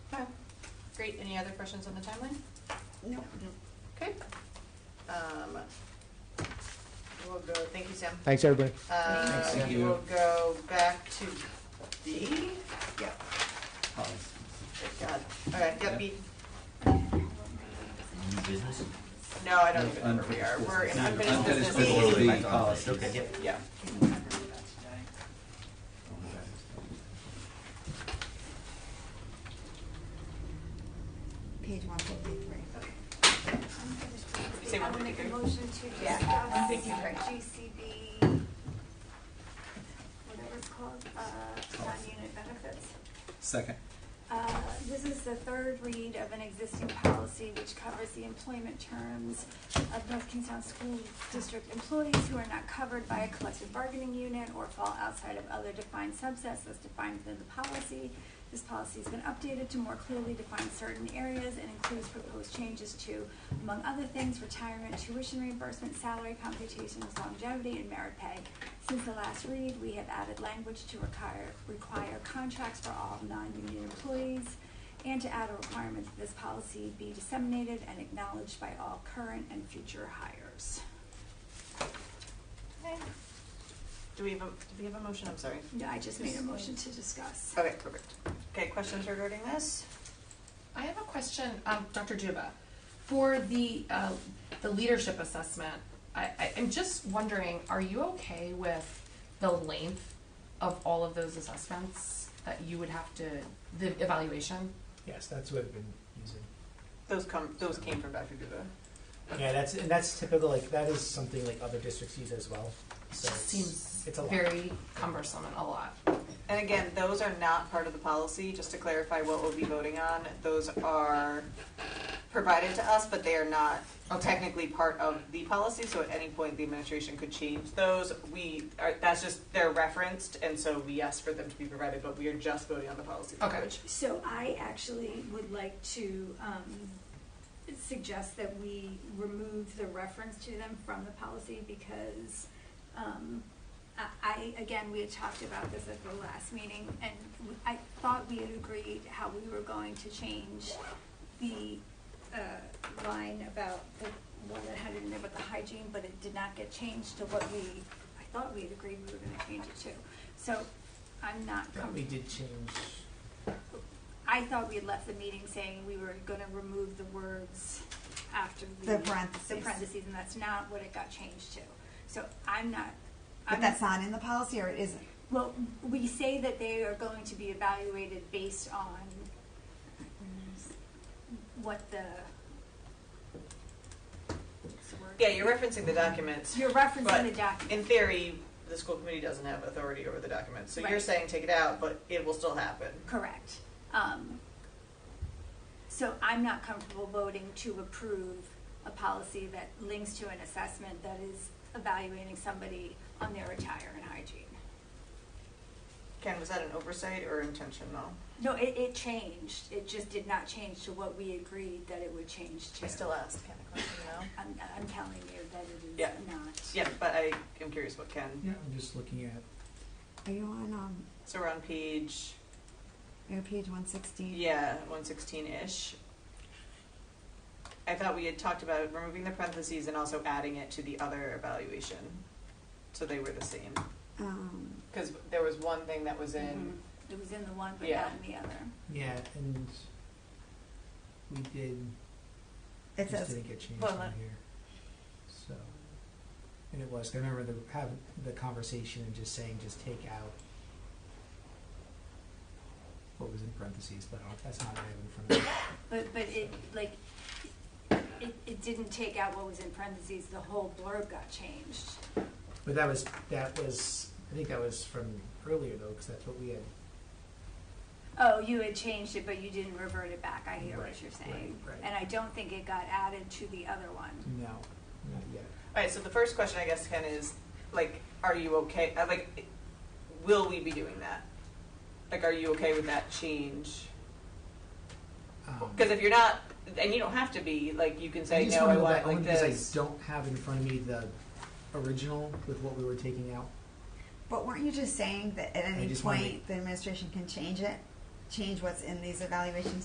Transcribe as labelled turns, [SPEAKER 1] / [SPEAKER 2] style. [SPEAKER 1] great. Any other questions on the timeline?
[SPEAKER 2] No.
[SPEAKER 1] Okay. Um, We'll go, thank you, Sam.
[SPEAKER 3] Thanks, everybody.
[SPEAKER 1] Uh,
[SPEAKER 4] Thanks, Sam.
[SPEAKER 1] We'll go back to B. Yep, God. All right, yep, B.
[SPEAKER 4] New business?
[SPEAKER 1] No, I don't even know where we are. We're in unfinished business. B.
[SPEAKER 4] B
[SPEAKER 3] Oh,
[SPEAKER 4] policy. Okay.
[SPEAKER 1] Yeah.
[SPEAKER 2] Page one fifty-three.
[SPEAKER 1] Say
[SPEAKER 5] I
[SPEAKER 1] one
[SPEAKER 5] would make a
[SPEAKER 1] fifty-three.
[SPEAKER 5] motion to
[SPEAKER 2] Yeah,
[SPEAKER 5] discuss
[SPEAKER 2] one fifty-three.
[SPEAKER 5] GCB, whatever it's called, uh, non-unit benefits.
[SPEAKER 6] Second.
[SPEAKER 5] Uh, This is the third read of an existing policy which covers the employment terms of North Kingstown School District employees who are not covered by a collective bargaining unit or fall outside of other defined subsets as defined within the policy. This policy has been updated to more clearly define certain areas and includes proposed changes to, among other things, retirement, tuition reimbursement, salary computations, longevity, and merit pay. Since the last read, we have added language to require, require contracts for all non-union employees and to add a requirement that this policy be disseminated and acknowledged by all current and future hires.
[SPEAKER 1] Do we have, a do we have a motion? I'm sorry.
[SPEAKER 5] No, I just made a motion to discuss.
[SPEAKER 1] Okay, perfect. Okay, questions regarding this?
[SPEAKER 7] I have a question, um, Dr. Juba, for the, uh, the leadership assessment. I, I, I'm just wondering, are you okay with the length of all of those assessments that you would have to, the evaluation?
[SPEAKER 3] Yes, that's what I've been using.
[SPEAKER 1] Those come, those came from Dr. Duba.
[SPEAKER 3] Yeah, that's, and that's typical, like, that is something like other districts use as well. So
[SPEAKER 7] Just
[SPEAKER 3] it's,
[SPEAKER 7] seems
[SPEAKER 3] it's a lot.
[SPEAKER 7] very cumbersome and a lot.
[SPEAKER 1] And again, those are not part of the policy, just to clarify what we'll be voting on. Those are provided to us, but they are not
[SPEAKER 7] Okay.
[SPEAKER 1] technically part of the policy, so at any point, the administration could change those. We, are that's just, they're referenced, and so we asked for them to be provided, but we are just voting on the policy
[SPEAKER 7] Okay.
[SPEAKER 1] language.
[SPEAKER 5] So I actually would like to um, suggest that we remove the reference to them from the policy because um, I- I, again, we had talked about this at the last meeting and w- I thought we had agreed how we were going to change the uh, line about the one that had in there about the hygiene, but it did not get changed to what we, I thought we had agreed we were gonna change it to. So I'm not
[SPEAKER 3] But
[SPEAKER 5] comfortable.
[SPEAKER 3] We did change,
[SPEAKER 5] I thought we had left the meeting saying we were gonna remove the words after the.
[SPEAKER 2] The parentheses.
[SPEAKER 5] The parentheses, and that's not what it got changed to. So I'm not,
[SPEAKER 2] But
[SPEAKER 5] I'm,
[SPEAKER 2] that's not in the policy or it isn't?
[SPEAKER 5] well, we say that they are going to be evaluated based on what the. what's the word?
[SPEAKER 1] Yeah, you're referencing the documents.
[SPEAKER 5] You're referencing the
[SPEAKER 1] But
[SPEAKER 5] document.
[SPEAKER 1] In theory, the school committee doesn't have authority over the documents, so you're
[SPEAKER 5] Right.
[SPEAKER 1] saying take it out, but it will still happen.
[SPEAKER 5] Correct. Um, So I'm not comfortable voting to approve a policy that links to an assessment that is evaluating somebody on their attire and hygiene.
[SPEAKER 1] Ken, was that an oversight or intentional?
[SPEAKER 5] No, it, it changed. It just did not change to what we agreed that it would change to.
[SPEAKER 1] I still asked Ken a question, no?
[SPEAKER 5] I'm, I'm telling you that it
[SPEAKER 1] Yeah.
[SPEAKER 5] is not.
[SPEAKER 1] Yeah, but I am curious what Ken,
[SPEAKER 3] yeah, I'm just looking at
[SPEAKER 2] Are you on, um,
[SPEAKER 1] so we're on page,
[SPEAKER 2] are you on page one sixteen?
[SPEAKER 1] yeah, one sixteen-ish. I thought we had talked about removing the parentheses and also adding it to the other evaluation, so they were the same.
[SPEAKER 2] Um,
[SPEAKER 1] Cause there was one thing that was
[SPEAKER 5] Mm-hmm.
[SPEAKER 1] in,
[SPEAKER 5] It was in the one, but
[SPEAKER 1] Yeah.
[SPEAKER 5] not in the other.
[SPEAKER 3] Yeah, and we did,
[SPEAKER 2] it
[SPEAKER 3] just
[SPEAKER 2] says,
[SPEAKER 3] didn't get changed
[SPEAKER 1] Well,
[SPEAKER 3] on
[SPEAKER 1] let-
[SPEAKER 3] here. So, and it was, 'cause I remember the, having the conversation and just saying, just take out what was in parentheses, but I don't- that's not what I have in front of me.
[SPEAKER 5] But, but it, like, it, it didn't take out what was in parentheses. The whole blurb got changed.
[SPEAKER 3] But that was, that was, I think that was from earlier though, because that's what we had.
[SPEAKER 5] Oh, you had changed it, but you didn't revert it back, I hear what
[SPEAKER 3] Right,
[SPEAKER 5] you're
[SPEAKER 3] right,
[SPEAKER 5] saying.
[SPEAKER 3] right.
[SPEAKER 5] And I don't think it got added to the other one.
[SPEAKER 3] No, not yet.
[SPEAKER 1] alright, so the first question I guess, Ken, is like, are you okay, uh, like, will we be doing that? Like, are you okay with that change?
[SPEAKER 3] Um,
[SPEAKER 1] Because if you're not, and you don't have to be, like, you can
[SPEAKER 3] I
[SPEAKER 1] say,
[SPEAKER 3] just
[SPEAKER 1] no,
[SPEAKER 3] wanna
[SPEAKER 1] I
[SPEAKER 3] go
[SPEAKER 1] want
[SPEAKER 3] back
[SPEAKER 1] it like
[SPEAKER 3] only because
[SPEAKER 1] this.
[SPEAKER 3] I don't have in front of me the original with what we were taking out.
[SPEAKER 2] but weren't you just saying that at any
[SPEAKER 3] just wanna
[SPEAKER 2] point,
[SPEAKER 3] make-
[SPEAKER 2] the administration can change it? Change what's in these evaluations